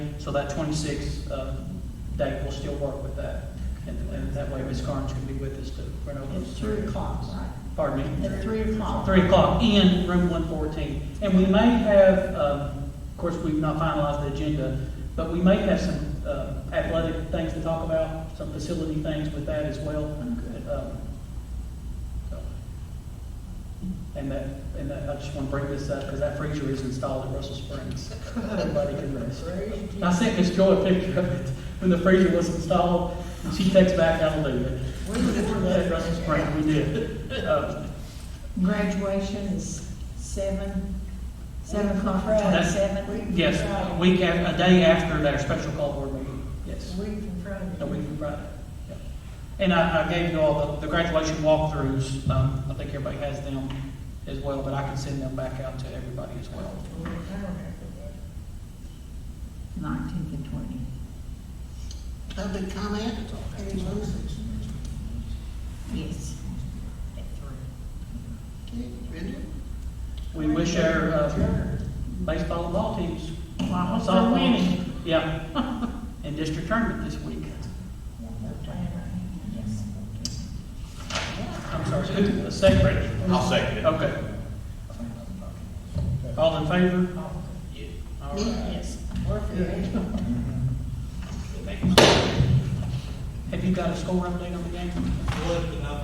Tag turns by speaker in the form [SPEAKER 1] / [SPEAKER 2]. [SPEAKER 1] So that 26th uh, date will still work with that. And and that way Ms. Carnes can be with us to run over
[SPEAKER 2] It's
[SPEAKER 1] those.
[SPEAKER 2] three o'clock, right?
[SPEAKER 1] Pardon me?
[SPEAKER 2] At three o'clock.
[SPEAKER 1] 3 o'clock in room 114. And we may have, um, of course, we've not finalized the agenda, but we may have some uh, athletic things to talk about, some facility things with that as well.
[SPEAKER 2] Okay.
[SPEAKER 1] Um, so. And that, and that, I just want to bring this up because that freezer is installed at Russell Springs. Everybody can rest. And I sent Miss Joy a picture of it when the freezer was installed, and she texts back, hallelujah.
[SPEAKER 2] We were-
[SPEAKER 1] At Russell Springs, we did. Uh,
[SPEAKER 2] Graduation is seven, seven o'clock, right,
[SPEAKER 1] That's-
[SPEAKER 2] seven?
[SPEAKER 1] Yes, a week, af- a day after their special call board meeting, yes.
[SPEAKER 2] Week from Friday.
[SPEAKER 1] A week from Friday. yeah. And I, I gave you all the, the graduation walkthroughs, um, I think everybody has them as well, but I can send them back out to everybody as well.
[SPEAKER 2] Nineteenth and twentieth.
[SPEAKER 3] Public comment? Any motions?
[SPEAKER 2] Yes. At
[SPEAKER 3] Okay, Brenda?
[SPEAKER 1] We wish our, uh, baseball and ball teams,
[SPEAKER 2] three. Well, I hope they're
[SPEAKER 1] softball,
[SPEAKER 2] winning.
[SPEAKER 1] yeah, in district tournament this week. I'm sorry, who, second?
[SPEAKER 4] I'll second it.
[SPEAKER 1] Okay. All in favor? All
[SPEAKER 3] Me?
[SPEAKER 1] right.
[SPEAKER 3] Yes. Warfield?
[SPEAKER 1] Have you got a score update on the game?